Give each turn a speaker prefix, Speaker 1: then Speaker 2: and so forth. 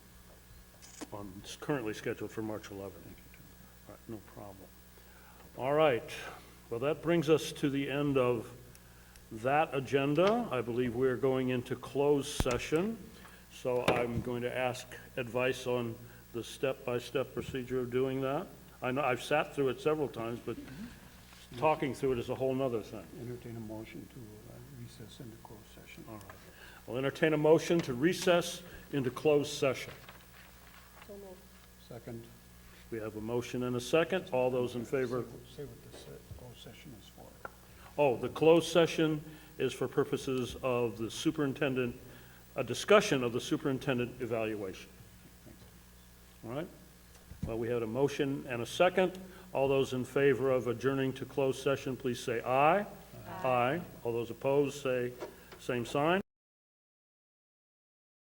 Speaker 1: on, it's currently scheduled for March 11th. All right, no problem. All right, well, that brings us to the end of that agenda. I believe we are going into closed session, so I'm going to ask advice on the step-by-step procedure of doing that. I know, I've sat through it several times, but talking through it is a whole nother thing.
Speaker 2: Entertain a motion to uh, recess into closed session.
Speaker 1: All right. I'll entertain a motion to recess into closed session.
Speaker 2: Second.
Speaker 1: We have a motion and a second. All those in favor?
Speaker 2: Say what- Say what this uh, closed session is for.
Speaker 1: Oh, the closed session is for purposes of the superintendent, a discussion of the superintendent evaluation. All right? Well, we had a motion and a second. All those in favor of adjourning to closed session, please say aye. Aye. All those opposed, say same sign.